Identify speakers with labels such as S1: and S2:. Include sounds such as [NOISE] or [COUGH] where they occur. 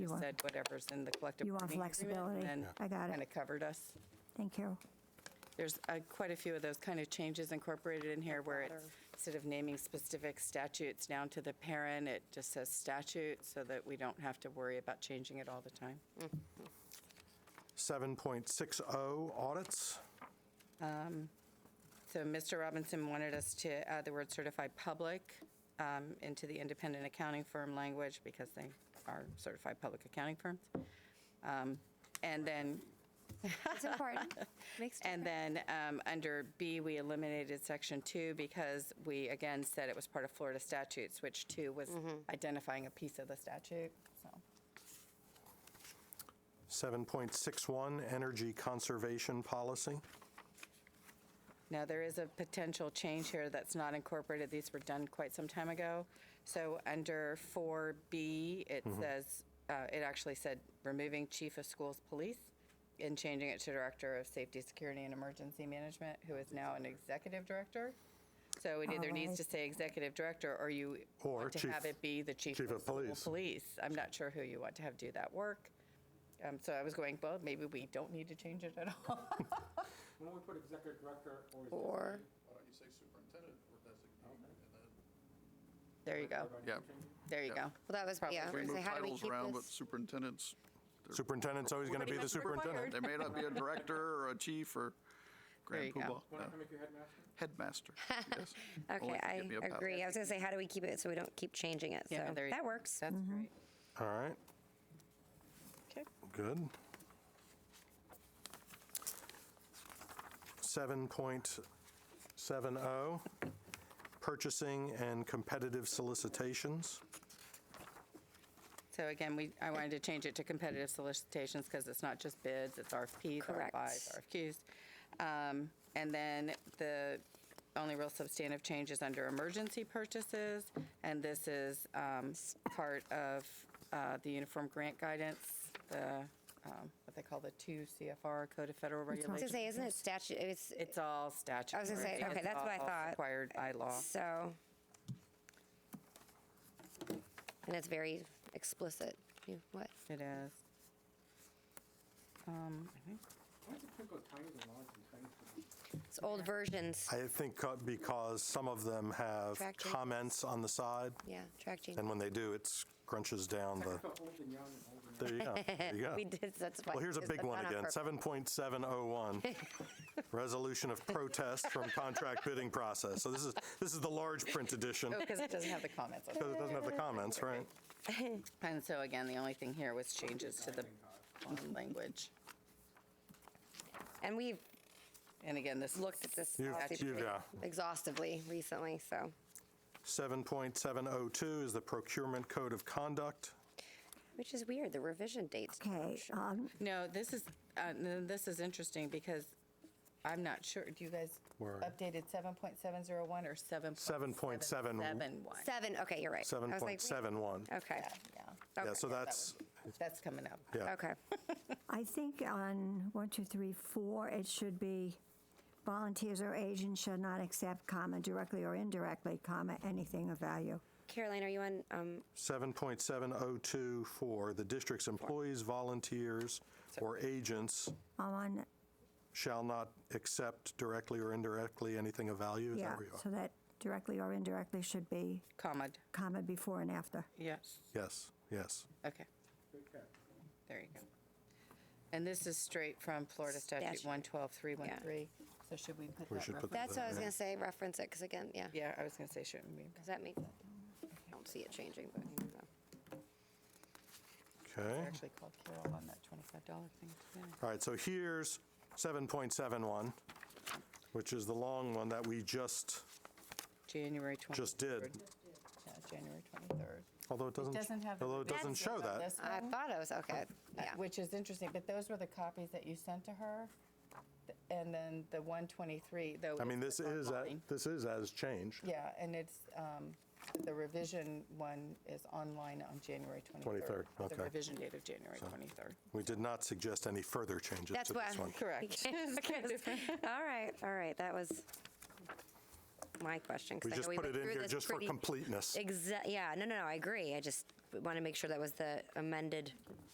S1: You
S2: You
S1: want-
S2: said whatever's in the collective
S1: You want
S2: bargaining agreement.
S1: flexibility.
S2: and
S1: I got it.
S2: Kind of covered us.
S1: Thank you.
S2: There's uh, quite a few of those kind of changes incorporated in here where it's, instead of naming specific statutes down to the parent, it just says statute so that we don't have to worry about changing it all the time.
S3: 7.60, audits.
S2: So Mr. Robinson wanted us to add the word certified public um, into the independent accounting firm language because they are certified public accounting firms. Um, And then
S4: It's
S2: [LAUGHS]
S4: important. Makes
S2: And then um, under B, we eliminated section two because we again said it was part of Florida statutes, which two was
S4: Mm-hmm.
S2: identifying a piece of the statute. So
S3: 7.61, energy conservation policy.
S2: now there is a potential change here that's not incorporated. These were done quite some time ago. So under 4B, it
S3: Mm-hmm.
S2: says uh, it actually said removing chief of schools police and changing it to director of safety, security, and emergency management, who is now an executive director. So it either needs
S1: Alright.
S2: to say executive director, or you
S3: Or
S2: want to
S3: chief-
S2: have it be the chief
S3: chief
S2: of
S3: of
S2: school
S3: police.
S2: police. I'm not sure who you want to have do that work. Um, so I was going, well, maybe we don't need to change it at all. [LAUGHS]
S5: When we put executive director or. is it-
S2: Or
S6: Why don't you say superintendent or designate, and then
S2: there you go,
S6: Yeah.
S2: there you
S6: Yeah.
S2: go.
S4: Well, that was, yeah. I
S6: we
S4: was gonna
S6: move
S4: say, how do we
S6: titles
S4: keep
S6: around, but
S4: this? [LAUGHS]
S6: superintendents,
S3: Superintendent's always going to be the
S2: Pretty much required.
S3: superintendent.
S6: they may not be a director or a chief or grand
S2: There you go.
S6: poobah.
S5: Wanna
S6: no.
S5: come make your headmaster?
S6: Headmaster,
S4: [LAUGHS]
S6: yes. Only
S4: Okay,
S6: if you
S4: I
S6: give me a pass.
S4: agree. I was gonna say, how do we keep it so we don't keep changing it?
S2: Yeah,
S4: So
S2: there you
S4: that
S2: go.
S4: works.
S2: That's great.
S3: All right,
S2: Okay.
S3: good. 7.70, oh, purchasing and competitive solicitations.
S2: So again, we, I wanted to change it to competitive solicitations because it's not just bids, it's RFPs,
S4: Correct.
S2: RFIs, RFQs. Um, And then the only real substantive change is under emergency purchases. And this is um, part of uh, the uniform grant guidance, the, um, what they call the two CFR Code of Federal
S4: I was gonna
S2: Regulations.
S4: say, isn't it statute, it's,
S2: It's all statute.
S4: gonna say, okay, that's what I thought.
S2: Required by law.
S4: so. And it's very explicit. You, what?
S2: It
S4: [LAUGHS]
S2: is. Um, I think
S5: Why does it print those tiny and large and tiny?
S4: It's old versions.
S3: I think uh, because some of them have
S4: Track changes.
S3: comments on the side,
S4: Yeah, track change.
S3: and when they do, it scrunches down the,
S5: I felt old and young and old and young.
S3: there you go, there you go.
S4: [LAUGHS] We did, that's why.
S3: Well, here's a
S4: it's
S3: big one
S4: not
S3: again,
S4: on purpose. [LAUGHS]
S3: 7.701, resolution of protest from contract bidding process. So this is, this is the large print edition,
S2: because it doesn't have the comments on it.
S3: because it doesn't have the comments, right?
S2: And so again, the only thing here was changes to the bond language.
S4: And we've
S2: And again, this
S4: looked at this
S3: You've-
S4: policy
S3: you've,
S4: pretty
S3: yeah.
S4: exhaustively recently, so.
S3: 7.702 is the procurement code of conduct.
S4: Which is weird, the revision dates.
S1: Okay, um,
S2: No, this is, uh, no, this is interesting because I'm not sure, do you guys
S3: Where are you?
S2: updated 7.701 or 7.771?
S3: 7.71.
S4: Seven, okay, you're right. I was like, wait,
S3: 7.71.
S4: Okay,
S2: Yeah,
S3: Yeah,
S4: Oh, okay,
S3: so that's,
S2: that's coming up.
S3: yeah.
S4: okay.
S1: I think on one, two, three, four, it should be volunteers or agents shall not accept, comma, directly or indirectly, comma, anything of value.
S4: Caroline, are you on, um,
S3: 7.702 for the district's employees, volunteers, or agents
S1: I'm on,
S3: shall not accept directly or indirectly anything of value. Is that
S1: yeah,
S3: where you are?
S1: so that directly or indirectly should be
S2: Comma,
S1: comma before and after.
S2: yes,
S3: Yes, yes.
S2: okay,
S5: Good cat.
S2: there you go. And this is straight from Florida Statute
S4: Statute.
S2: 112313. So should we put
S3: We
S2: that
S3: should put
S2: reference?
S4: that's what I was gonna say, reference it, because again, yeah,
S2: Yeah, I was going to say, shouldn't we?
S4: because that makes, I don't see it changing, but you know.
S3: Okay.
S2: Actually called Carol on that $25 thing today.
S3: All right, so here's 7.71, which is the long one that we just,
S2: January 23rd.
S3: Just did.
S2: Yeah, January 23rd.
S3: although it doesn't,
S2: Doesn't have. the
S3: although it doesn't
S2: vaccines
S3: show
S2: on
S3: that.
S2: this
S4: I
S2: one,
S4: thought I was, okay, [LAUGHS] yeah.
S2: uh, Which is interesting, but those were the copies that you sent to her. th- And then the 123, though.
S3: I mean,
S2: it's
S3: this
S2: what's
S3: is, a-
S2: online.
S3: this is as changed,
S2: Yeah, and it's, um, the revision one is online on January 23rd.
S3: 23rd,
S2: The
S3: okay.
S2: revision date of January 23rd.
S3: We did not suggest any further changes
S4: That's
S3: to
S4: why.
S3: this one.
S4: [LAUGHS]
S2: Correct.
S4: All right, all right, that was my question. 'cause
S3: We
S4: I know
S3: just put
S4: went
S3: it in
S4: through
S3: here
S4: this
S3: just for
S4: pretty-
S3: completeness.
S4: Exa, yeah, no, no, no, I agree, I just want to make sure that was the amended